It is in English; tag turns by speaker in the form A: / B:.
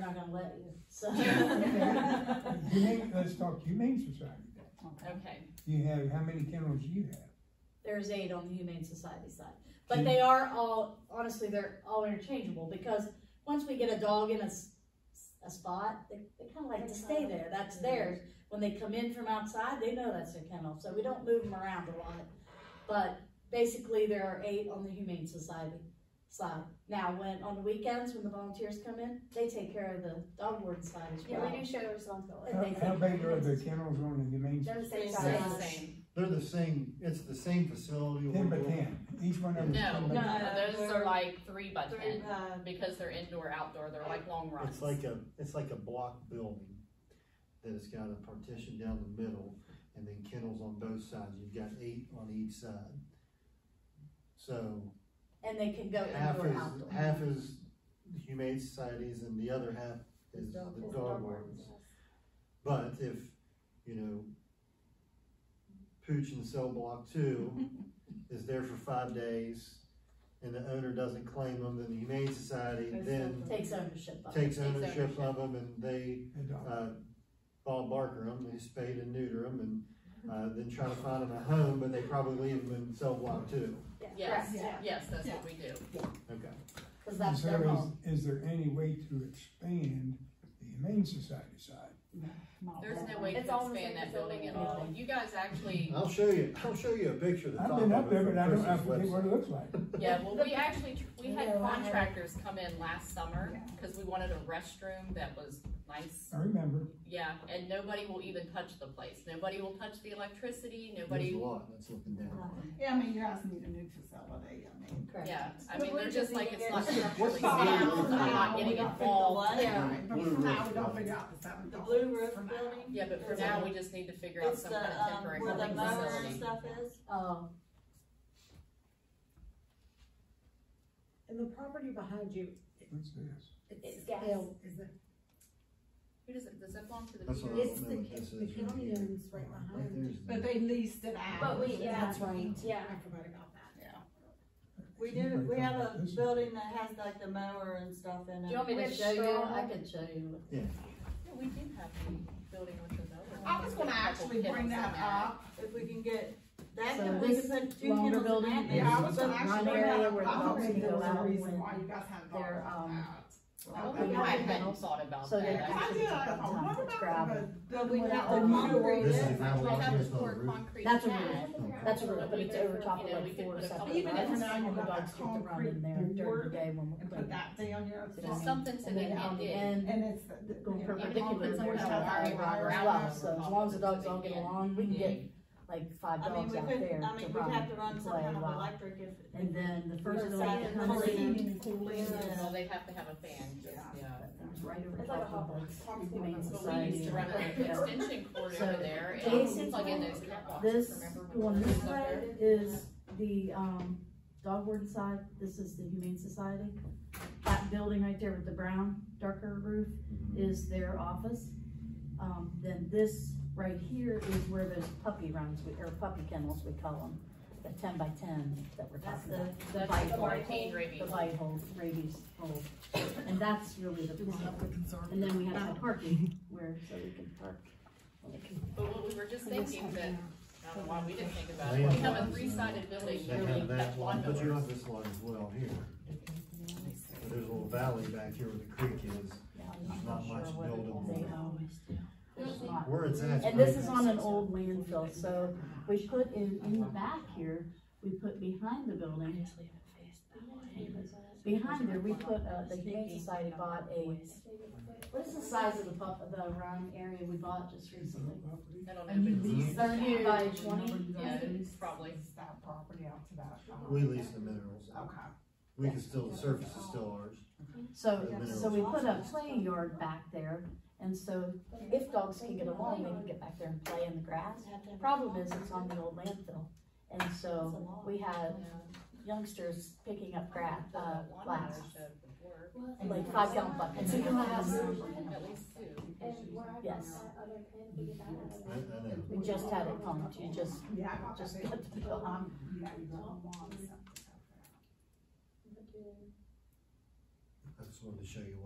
A: not gonna let you, so.
B: Humane, let's talk Humane Society.
C: Okay,
B: You have, how many kennels do you have?
A: There's eight on the Humane Society side, but
D: Mm-hmm.
A: they are all, honestly, they're all interchangeable, because once we get a dog in a, s- a spot, they, they kinda like to stay there, that's
E: Mm-hmm.
A: theirs. When they come in from outside, they know that's their kennel, so we don't move them around a lot. But basically, there are eight on the Humane Society side. Now, when, on the weekends, when the volunteers come in, they take care of the dog warden side as
E: Yeah, we
A: well.
E: do share the responsibility.
A: And they
B: How, how big are the kennels on the Humane?
E: They're the
C: they're
E: same
C: the
E: size.
C: same.
D: They're the same, it's the same facility.
B: Ten by ten, each one of them. is
C: No,
B: 10 by
C: no,
B: 10.
C: those are like three by
E: Three,
C: ten,
E: uh,
C: because they're indoor, outdoor, they're like long runs.
D: It's like a, it's like a block building that has got a partition down the middle and then kennels on both sides. You've got eight on each side. So
A: And they can go
D: half
A: indoor,
D: is,
A: outdoor.
D: half is humane societies and the other half is the
E: it's the
D: dog
E: dog ones,
D: wardens.
E: yes.
D: But if, you know, Pooch in cell block two is there for five days and the owner doesn't claim them, then the Humane Society then
A: Takes ownership of it.
D: takes
C: ownership.
D: ownership of them and they,
B: Adopt.
D: uh, Bob Barker them, they spade and neuter them and, uh, then try to find them a home, but they probably leave them in cell block two.
C: Yes,
A: Correct, yeah.
C: yes, that's what we do.
D: Okay.
A: Cause
B: And
A: that's
B: so
A: their home.
B: is, is there any way to expand the Humane Society side?
C: There's no way to
E: It's all the
C: expand
E: same
C: that building at
E: facility.
C: all. You guys actually,
D: I'll show you, I'll show you a picture of the top
B: I've
D: of it
B: been up there,
D: from
B: but I don't, I
D: Chris's
B: forget
D: website.
B: what it looks like.
C: yeah, well, we actually, tr- we
E: Yeah,
C: had
E: I know.
C: contractors come in last summer, cause we wanted a restroom that was nice.
B: I remember.
C: Yeah, and nobody will even touch the place. Nobody will touch the electricity,
D: There's
C: nobody,
D: a lot that's looking down.
F: Yeah, I mean, you guys need a new facility, I mean.
A: Correct.
C: yeah, I
E: But
C: mean,
E: we
C: they're
E: just
C: just like,
E: need to
C: it's
E: get-
C: not
E: What's
C: structurally
D: the blue
C: sound,
D: roof
C: I'm not
D: now?
C: getting
F: We don't figure
C: involved.
F: what?
A: Yeah.
F: Right, But
D: Blue
F: for now,
D: roof
F: we don't
D: building.
F: figure out the seven
G: The
F: dollars.
G: blue roof
F: for now.
G: building?
C: Yeah, but for
G: It's
C: now,
G: a-
C: we just need to figure out
G: It's
C: some
G: the,
C: kind of
G: um,
C: temporary
G: where the
C: housing
G: mower and
C: facility.
G: stuff is.
A: Oh,
H: And the property behind you,
B: What's this?
H: it's
E: It's gas.
H: Bill, is it?
C: Who does it, does that belong to the?
D: That's what
C: PRO?
D: I
H: It's
D: don't know
H: the,
D: what this
H: the
D: is. right
H: county
D: here.
H: owns right
D: Right
H: behind.
D: there's the-
F: But they leased it out.
E: But we- yeah.
H: That's right.
E: Yeah.
H: I forgot about that.
G: We do, we have a building that has like the mower and stuff in
A: do
G: it.
A: you want me to
E: With
A: show you?
E: straw.
A: I can show you.
C: Yeah, we do have the building with the. mower.
F: I was gonna actually bring that up,
G: If we can get, that,
H: So
G: can- we
H: this
G: can put two
H: longer
G: kennels
H: building
G: in
H: is-
G: that.
F: yeah, I was gonna
H: One
F: actually bring
H: area
F: that
H: where
F: up, I
H: the
F: don't
H: dogs
F: think there
H: go
F: was a
H: out
F: reason
H: when
F: why you guys had
H: they're,
F: dogs out.
H: um,
F: I
C: Oh,
F: don't
C: yeah,
F: know
C: I
F: why you
C: hadn't
F: had-
C: thought about
A: So they're
F: I
C: that.
A: actually-
F: did, I don't know, I
H: It's
F: remember
H: gravel.
F: the-
G: But we
F: the-
G: have
F: the
G: to
F: concrete.
G: monitor
D: This
G: it.
D: is how
C: We
D: long
C: have
D: this
C: to
D: is on the
C: pour
D: roof.
C: concrete
A: That's a
C: pad.
A: roof.
D: Okay.
A: That's a roof,
C: But
A: but
C: we
A: it's
C: could-
A: over top of
C: you know, we
A: like
C: could
A: four or
C: put a
A: something.
C: couple
F: Even if
C: buttons.
F: now you
H: All the
F: got
H: dogs
F: that
H: get to run in
F: concrete
H: there during the
F: board
H: day when
F: and
H: we're
F: put
H: cleaning.
F: that down there. it's
C: Just
F: like-
C: something so
A: And
C: they
A: then
C: can't
A: on the
C: get.
A: end,
F: And it's. the-
H: Going
F: yeah,
A: perpendicular
F: concrete's
A: is where
F: always
A: it's
C: our-
F: have that
C: our-
F: wire
C: our-
F: around it.
A: rough, so as long as the dogs all get along, we can get like five
G: I mean,
A: dogs
G: we
A: out
G: could,
A: there
G: I
A: to
G: mean, we'd have to
A: run
G: run
A: and
G: some
A: play
G: kind
A: a
G: of
A: while.
G: electric if.
A: And then the first
G: Or
A: dog
G: second,
A: comes in,
F: Cooling, cooling.
G: Yeah.
C: Well, they have to have a fan, just,
F: Yeah.
C: yeah.
A: it's right over
E: It's like a
A: top
E: hot
A: of
E: box.
A: the humane
C: But we used
A: society.
C: to run an
A: Yeah.
C: extension cord
A: So
C: over there
A: basically,
C: and plug in those cat boxes,
A: This,
C: remember? when we
A: one
C: were
A: this
C: up there?
A: way is the, um, dog warden side, this is the humane society. That building right there with the brown darker roof is their office. Um, then this right here is where those puppy runs, we- or puppy kennels, we call them, the ten by ten that we're
G: That's
A: talking about. The
C: That's
A: bite
C: the
A: hole,
C: quarantine rabies.
A: The bite hole, rabies hole, and that's really the, and then we have the parking where, so we can park.
C: But what we were just thinking that, I don't know why we didn't think about it,
D: Land
C: we have a
D: lines,
C: three-sided building
D: They
C: where we
D: have
C: have
D: that
C: lawn
D: one, but you
C: mowers.
D: have this one as well here. But There's a little valley back here where the creek is.
A: Yeah, I'm
D: Not
A: sure
D: much
A: what it-
D: buildable.
A: they own. There's not.
D: Where it's at.
A: And this is on an old landfill, so we put in, in the back here, we put behind the building.
H: Oh,
A: Behind there, we put, uh, the Humane Society bought a, what is the size of the pub, the run area we bought just recently?
C: I
A: I mean,
C: don't know,
A: these thirty by twenty,
C: but, yeah, it's probably.
F: That property out to that. um,
D: We lease the minerals.
F: Okay.
D: We can still, the surface is still ours.
A: so, so we put a play yard back there. And so if dogs can get along, they can get back there and play in the grass. Problem is, it's on the old landfill. And so we have youngsters picking up grass,
C: The
A: uh,
C: lawn
A: glass,
C: mowers have the work.
A: like five gallon buckets of glass.
C: At least two.
A: Yes,
D: I, I know.
A: we just had it pumped, you just,
F: Yeah, I got
A: just
F: that.
A: got the bill.
F: Um, yeah, you don't want something.
D: I just wanted to show you